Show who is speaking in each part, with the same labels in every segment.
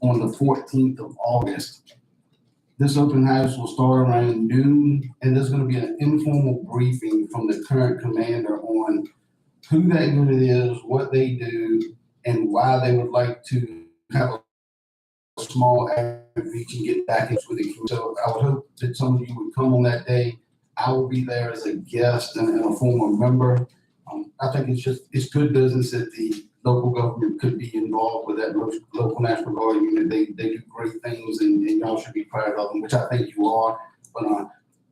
Speaker 1: on the fourteenth of August. This open house will start around noon, and there's gonna be an informal briefing from the current commander on who that unit is, what they do, and why they would like to have a small outreach and get back into the community. So I would hope that some of you would come on that day. I will be there as a guest and and a former member. Um, I think it's just, it's good business that the local government could be involved with that lo- local National Guard unit. They, they do great things and, and y'all should be proud of them, which I think you are. But, uh,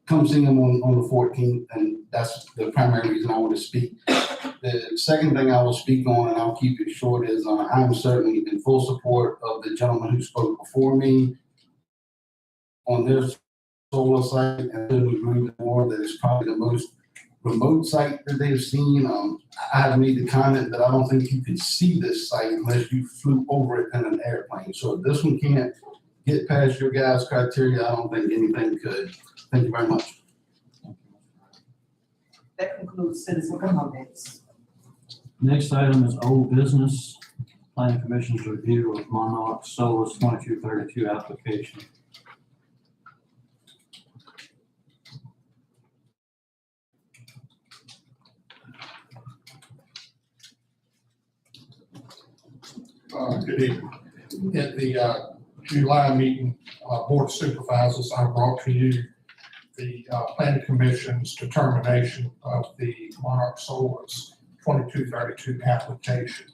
Speaker 1: come see them on, on the fourteenth and that's the primary reason I want to speak. The second thing I will speak on, and I'll keep it short, is, uh, I'm certainly in full support of the gentleman who spoke before me on their solar site and I would agree with more that it's probably the most remote site that they've seen. Um, I have made the comment that I don't think you could see this site unless you flew over it in an airplane. So if this one can't get past your guys' criteria, I don't think anything could. Thank you very much.
Speaker 2: That concludes citizen comments.
Speaker 3: Next item is old business, planning commission's review of Monarch Solar's twenty-two thirty-two application.
Speaker 4: Uh, Good evening. At the uh, July meeting, uh, Board of Supervisors, I brought to you the uh, Planning Commission's determination of the Monarch Solar's 2232 application.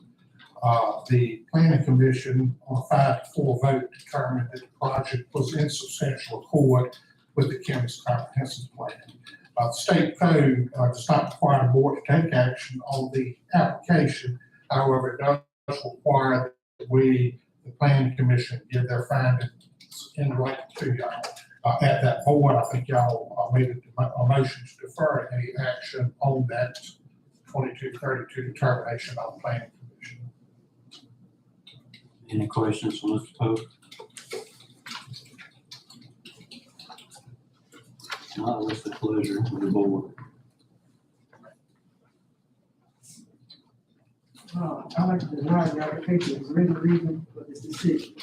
Speaker 4: Uh, The Planning Commission, on a five to four vote, determined that the project was in substantial accord with the county's comprehensive plan. Uh, The State code uh, does not require a board to take action on the application. However, it does does require that we, the planning commission, give their findings in writing to y'all. Uh, at that board, I think y'all, uh, made a, a motion to defer any action on that twenty-two thirty-two determination by the planning commission.
Speaker 3: Any questions from Mr. Pope? Not with the pleasure of the board.
Speaker 2: Uh, I like to deny the application for any reason for this decision.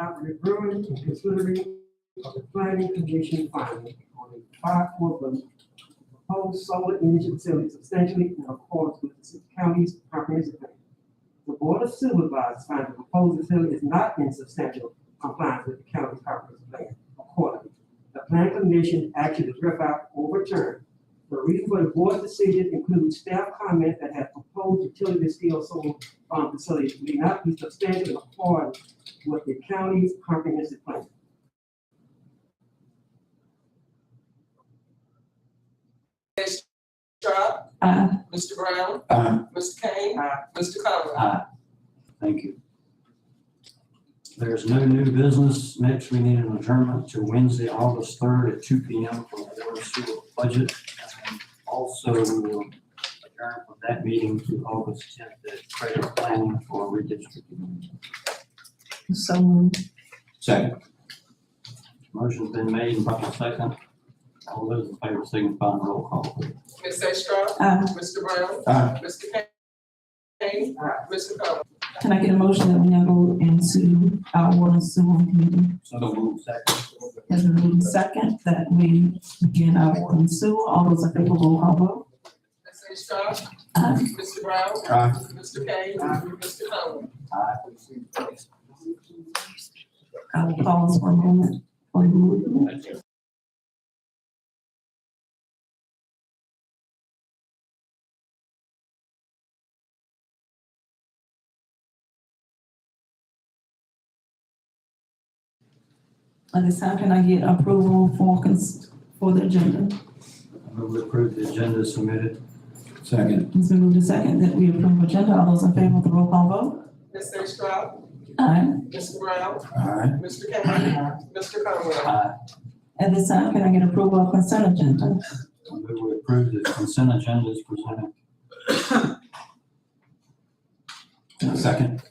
Speaker 2: After reviewing and considering of the planning commission finding on a five four vote, proposed solar energy facility substantially in accordance with the county's comprehensive plan. The board of supervisors find the proposed facility is not in substantial compliance with the county's comprehensive plan. Accordingly, the planning commission action is hereby overturned the reason for the board's decision includes staff comments that have proposed utility scale solar farm facilities may not be substantially according with the county's comprehensive plan.
Speaker 5: Sharp,
Speaker 6: Aye.
Speaker 5: Mr. Brown,
Speaker 1: Uh,
Speaker 5: Mr. Kane,
Speaker 2: Aye.
Speaker 5: Mr. Conrad.
Speaker 3: Aye. Thank you. There's no new business. Next, we need an adjournment to Wednesday, August third at two P M for water sewer budget. And Also, we will adjourn from that meeting to August tenth at credit planning for redistricting.
Speaker 6: So moved.
Speaker 3: Second. Motion's been made and properly second. All those in favor signify by roll call, please.
Speaker 5: Ms. A. Sharp,
Speaker 6: Aye.
Speaker 5: Mr. Brown,
Speaker 1: Aye.
Speaker 5: Mr. Kane,
Speaker 2: Aye.
Speaker 5: Mr. Conrad.
Speaker 6: Can I get a motion that we now go into our water and sewer committee?
Speaker 3: So moved. Second.
Speaker 6: Has been moved second that we begin our water and sewer. All those in favor, roll call vote.
Speaker 5: Ms. A. Sharp,
Speaker 6: Aye.
Speaker 5: Mr. Brown,
Speaker 1: Aye.
Speaker 5: Mr. Kane,
Speaker 2: Aye.
Speaker 5: Mr. Conrad.
Speaker 3: Aye.
Speaker 6: I will pause for a moment for the movement. At this time, can I get approval for cons, for the agenda?
Speaker 3: I move to approve the agenda as submitted.
Speaker 1: Second.
Speaker 6: It's been moved and second that we approve agenda. All those in favor with the roll call vote?
Speaker 5: Ms. A. Sharp,
Speaker 6: Aye.
Speaker 5: Mr. Brown,
Speaker 1: Aye.
Speaker 5: Mr. Kane, Mr. Conrad.
Speaker 3: Aye.
Speaker 6: At this time, can I get approval of consent
Speaker 3: I
Speaker 6: agenda?
Speaker 3: move we approve the consent agenda as presented.
Speaker 1: Second.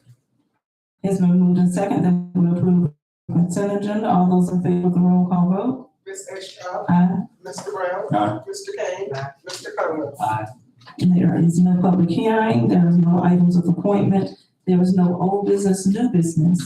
Speaker 6: It's been moved and second that we approve consent agenda. All those in favor with the roll call vote?
Speaker 5: Ms. A. Sharp,
Speaker 6: Aye.
Speaker 5: Mr. Brown,
Speaker 1: Aye.
Speaker 5: Mr. Kane, Mr. Conrad.
Speaker 3: Aye.
Speaker 6: There is no public hearing. There is no items of appointment. There was no old business, new business.